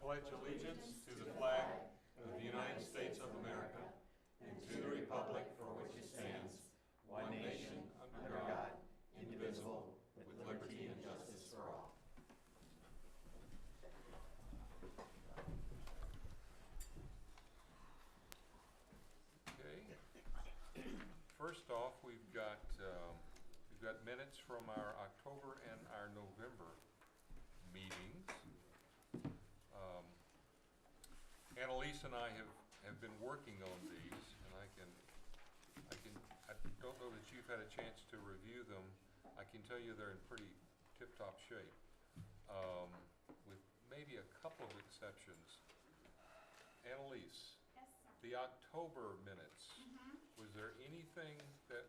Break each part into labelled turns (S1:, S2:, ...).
S1: pledge allegiance to the flag of the United States of America and to the republic for which it stands, one nation, under God, indivisible, with liberty and justice for all. Okay. First off, we've got, um, we've got minutes from our October and our November meetings. Um, Annalise and I have, have been working on these, and I can, I can, I don't know that you've had a chance to review them. I can tell you they're in pretty tip-top shape, um, with maybe a couple of exceptions. Annalise,
S2: Yes, sir.
S1: the October minutes,
S2: Mm-hmm.
S1: was there anything that,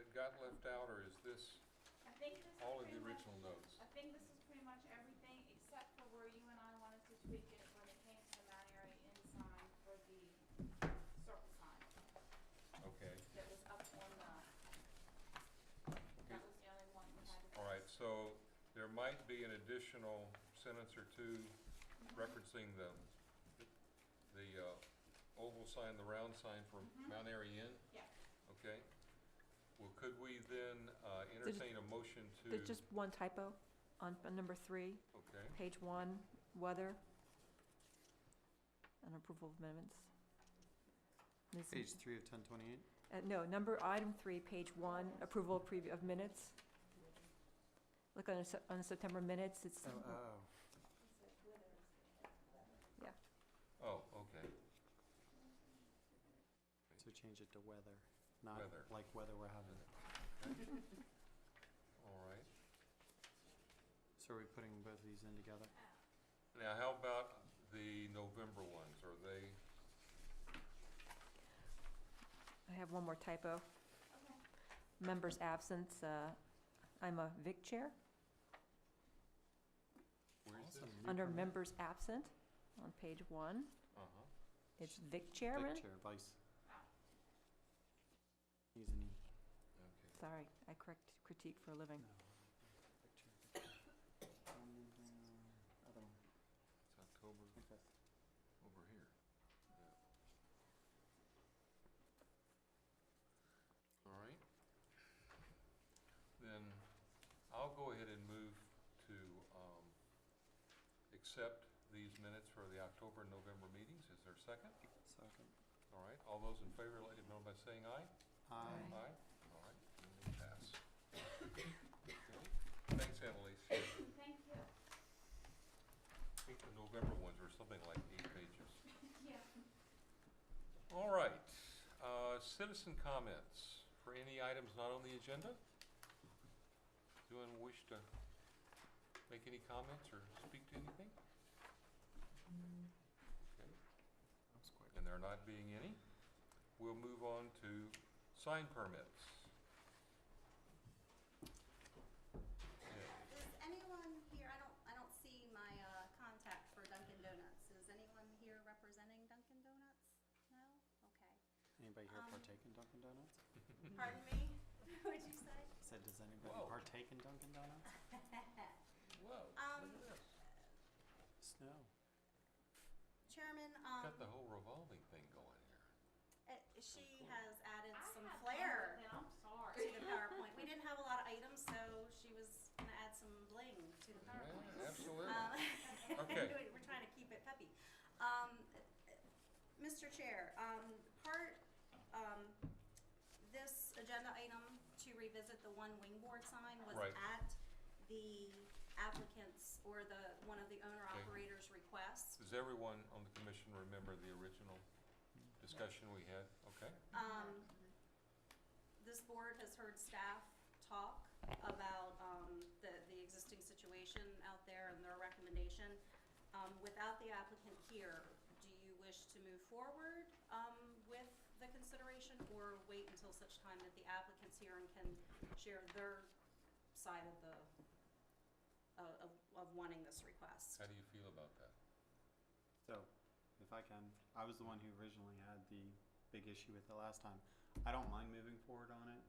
S1: that got left out, or is this
S2: I think this is
S1: all of
S2: pretty
S1: the
S2: much-
S1: original notes?
S2: I think this is pretty much everything except for where you and I wanted to tweak it when it came to the Mount Airy Inn sign for the circle sign
S1: Okay,
S2: that was up on the,
S1: Okay.
S2: that was the only one we had. to
S1: all right, so there might be an additional sentence or two
S2: Mm-hmm.
S1: referencing the, the uh, oval sign, the round sign for Mount Airy Inn,
S2: Yeah,
S1: okay? Well, could we then uh, entertain a motion to?
S3: There's just one typo on on number three,
S1: Okay,
S3: page one, weather. And approval of amendments. Ms.
S4: Page three of ten twenty-eight.
S3: Uh, no, number, item three, page one, approval of previ- of minutes. Look on the, Sep- on the September minutes, it's,
S4: Oh,
S3: yeah,
S1: oh, okay,
S4: so change it to weather, not
S1: Weather.
S4: like weather we're having.
S1: all right.
S4: So are we putting both of these in together?
S1: Now, how about the November ones? Are they,
S3: I have one more typo.
S2: okay.
S3: Members absent, uh, I'm a Vic chair,
S1: where's this?
S4: Awesome, new
S3: under
S4: permit.
S3: members absent, on page one,
S1: Uh-huh.
S3: it's Vic
S4: Vic
S3: chairman.
S4: Chair, vice.
S2: Wow.
S4: He's an E.
S1: Okay.
S3: Sorry, I correct critique for a living.
S4: No, Vic Chair. Um, uh, other one,
S1: It's October
S4: like this.
S1: over here. All right. Then I'll go ahead and move to um, accept these minutes for the October and November meetings. Is there a second?
S4: Second.
S1: All right, all those in favor, let it know by saying aye.
S4: Aye.
S1: All right, then they pass. Okay. Thanks, Annalise. I
S2: Thank you.
S1: think the November ones were something like eight pages.
S2: Yeah.
S1: All right, uh, citizen comments for any items not on the agenda? Do anyone wish to make any comments or speak to anything? Okay,
S4: That was quick.
S1: And there not being any, we'll move on to sign permits. Yeah,
S5: Is anyone here, I don't, I don't see my uh, contact for Dunkin' Donuts. Is anyone here representing Dunkin' Donuts? No? Okay.
S4: Anybody here
S5: Um,
S4: partake in Dunkin' Donuts?
S5: Pardon me? What'd you say?
S4: I said, does anybody
S1: Whoa.
S4: partake in Dunkin' Donuts?
S1: Whoa, look
S5: Um,
S1: at this.
S4: Snow.
S5: Chairman,
S1: Got the
S5: um,
S1: whole revolving thing going here.
S5: eh, she has added
S2: I
S5: some
S2: had fun
S5: flair
S2: with it, I'm
S5: to
S2: sorry.
S5: the PowerPoint. We didn't have a lot of items, so she was gonna add some bling to the PowerPoint.
S1: Yeah, Absolutely.
S5: Um,
S1: Okay.
S5: We're trying to keep it peppy. Um, Mr. Chair, um, part, um, this agenda item to revisit the one wingboard sign was
S1: Right.
S5: at the applicant's or the, one of the owner operator's request.
S1: Does everyone on the commission remember the original discussion we had? Okay,
S5: Um, this board has heard staff talk about, um, the, the existing situation out there and their recommendation. Um, without the applicant here, do you wish to move forward, um, with the consideration or wait until such time that the applicant's here and can share their side of the, of, of- of wanting this request?
S1: how do you feel about that?
S4: So, if I can, I was the one who originally had the big issue with it last time. I don't mind moving forward on it,